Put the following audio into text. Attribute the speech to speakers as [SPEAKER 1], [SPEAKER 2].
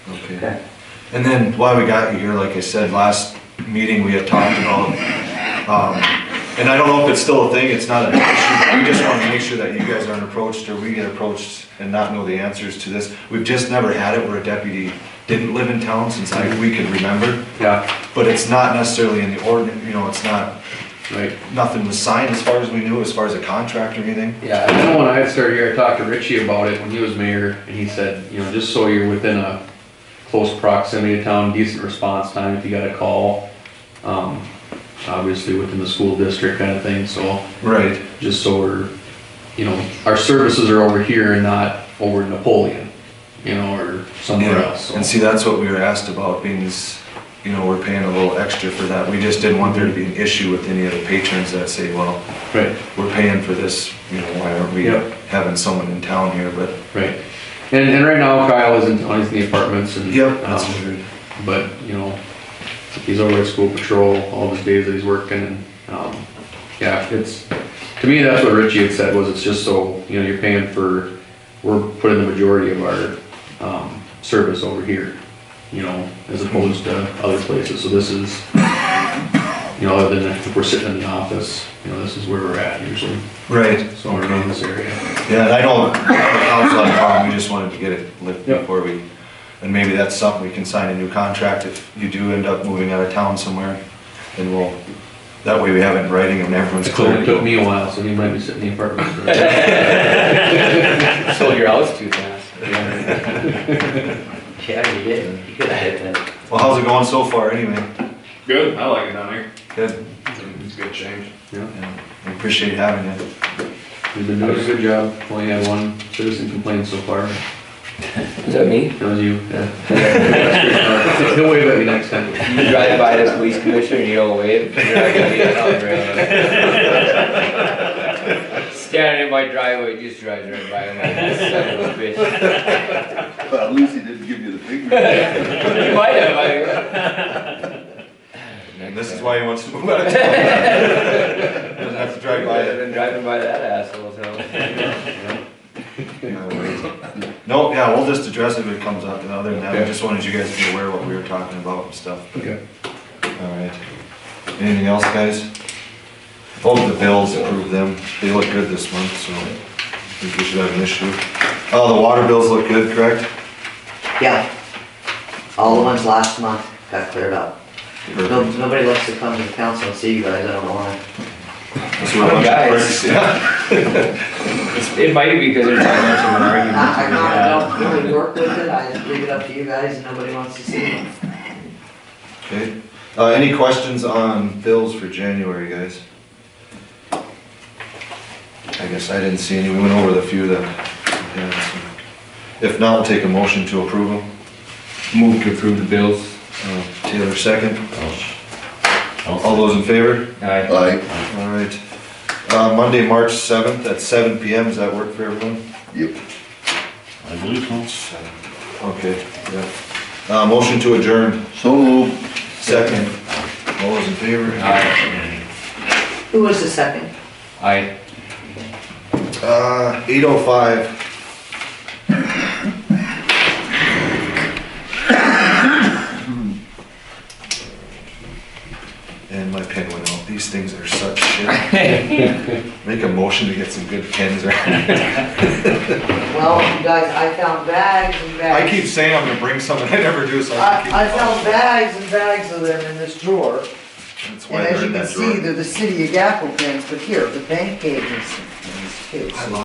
[SPEAKER 1] Okay.
[SPEAKER 2] Okay.
[SPEAKER 1] And then why we got you here, like I said, last meeting, we had talked about, um, and I don't know if it's still a thing, it's not an issue. We just wanna make sure that you guys aren't approached or we get approached and not know the answers to this. We've just never had it where a deputy didn't live in town since I, we could remember.
[SPEAKER 2] Yeah,
[SPEAKER 1] But it's not necessarily in the ordinance, you know, it's not,
[SPEAKER 2] right.
[SPEAKER 1] nothing was signed as far as we knew, as far as a contract or anything.
[SPEAKER 2] Yeah, I know when I started here, I talked to Richie about it when he was mayor, and he said, you know, just so you're within a close proximity to town, decent response time if you got a call. Um, obviously within the school district kind of thing, so
[SPEAKER 1] Right.
[SPEAKER 2] just so we're, you know, our services are over here and not over in Napoleon, you know, or somewhere
[SPEAKER 1] Yeah,
[SPEAKER 2] else.
[SPEAKER 1] and
[SPEAKER 2] so.
[SPEAKER 1] see, that's what we were asked about, being this, you know, we're paying a little extra for that. We just didn't want there to be an issue with any of the patrons that say, well,
[SPEAKER 2] Right.
[SPEAKER 1] we're paying for this, you know, why aren't we
[SPEAKER 2] Yep.
[SPEAKER 1] having someone in town here, but.
[SPEAKER 2] Right. And, and right now Kyle is in, he's in the apartments and.
[SPEAKER 1] Yep.
[SPEAKER 2] um, But, you know, he's over at school patrol all of his days that he's working and, um, yeah, it's, to me, that's what Richie had said was it's just so, you know, you're paying for, we're putting the majority of our, um, service over here, you know, as opposed to other places. So this is, you know, other than if we're sitting in the office, you know, this is where we're at usually.
[SPEAKER 1] Right.
[SPEAKER 2] So we're in this area.
[SPEAKER 1] Yeah, and I know, the council had a problem, we just wanted to get it lit
[SPEAKER 2] Yep.
[SPEAKER 1] before we, and maybe that's something, we can sign a new contract if you do end up moving out of town somewhere, then we'll, that way we have it in writing and everyone's
[SPEAKER 2] It took
[SPEAKER 1] clear.
[SPEAKER 2] me a while, so he might be sitting in the apartment. for a while.
[SPEAKER 3] Sold your house too fast.
[SPEAKER 2] Yeah.
[SPEAKER 3] Yeah, you did. You could have hit that.
[SPEAKER 1] Well, how's it going so far, anyway?
[SPEAKER 4] Good, I like it down here.
[SPEAKER 1] Good,
[SPEAKER 4] It's a good change.
[SPEAKER 1] Yeah, we appreciate having you.
[SPEAKER 2] You've been doing a good job. Only had one citizen complaint so far.
[SPEAKER 5] Is that me?
[SPEAKER 2] That was you. yeah. He'll wave at me next time.
[SPEAKER 5] You drive by this police commissioner and you don't wave, you're not gonna be on the road. Standing in my driveway, just drives right by, I'm like, this son of a bitch.
[SPEAKER 6] Well, at least he didn't give you the finger.
[SPEAKER 5] You might have, I.
[SPEAKER 1] And this is why he wants to move out of town. Doesn't have to drive by
[SPEAKER 5] I've
[SPEAKER 1] it.
[SPEAKER 5] been driving by that asshole, so.
[SPEAKER 1] No, yeah, we'll just address it if it comes up, and other than that, I
[SPEAKER 2] Okay.
[SPEAKER 1] just wanted you guys to be aware of what we were talking about and stuff.
[SPEAKER 2] Okay.
[SPEAKER 1] Alright. Anything else, guys? Oh, the bills, approve them. They look good this month, so I think we should have an issue. Oh, the water bills look good, correct?
[SPEAKER 3] Yeah. All the ones last month got cleared up. No,
[SPEAKER 1] Perfect.
[SPEAKER 3] nobody loves to come to the council and see you guys, I don't know why.
[SPEAKER 1] That's what I wanted to
[SPEAKER 5] Guys.
[SPEAKER 1] Yeah.
[SPEAKER 5] It might be because there's not much of an
[SPEAKER 3] I,
[SPEAKER 5] argument.
[SPEAKER 3] I
[SPEAKER 5] to be had.
[SPEAKER 3] don't- I don't really work with it, I just leave it up to you guys and nobody wants to see it.
[SPEAKER 1] Okay. Uh, any questions on bills for January, guys? I guess I didn't see any. We went over the few that. yeah, so. If not, we'll take a motion to approve them.
[SPEAKER 4] Move to approve the bills.
[SPEAKER 1] Uh, Taylor, second. All those in favor?
[SPEAKER 5] Alright,
[SPEAKER 6] Like,
[SPEAKER 1] All right. Uh, Monday, March seventh at seven PM. Does that work for everyone?
[SPEAKER 6] yep.
[SPEAKER 7] I believe so.
[SPEAKER 1] Okay, yeah. Uh, motion to adjourn,
[SPEAKER 6] So moved.
[SPEAKER 1] second. All those in favor?
[SPEAKER 3] Who was the second?
[SPEAKER 5] aye.
[SPEAKER 1] Uh, eight oh five. And my pen went out. These things are such shit. Make a motion to get some good pens around.
[SPEAKER 3] Well, you guys, I found bags and
[SPEAKER 1] I
[SPEAKER 3] bags.
[SPEAKER 1] keep saying I'm gonna bring some and I never do, so I
[SPEAKER 3] I, I found
[SPEAKER 1] keep.
[SPEAKER 3] bags and bags of them in this drawer,
[SPEAKER 1] That's why
[SPEAKER 3] and
[SPEAKER 1] they're
[SPEAKER 3] as you
[SPEAKER 1] in
[SPEAKER 3] can
[SPEAKER 1] that
[SPEAKER 3] see,
[SPEAKER 1] drawer.
[SPEAKER 3] they're the city of Gackel pens, but here, the bank agents. and these kids.
[SPEAKER 1] I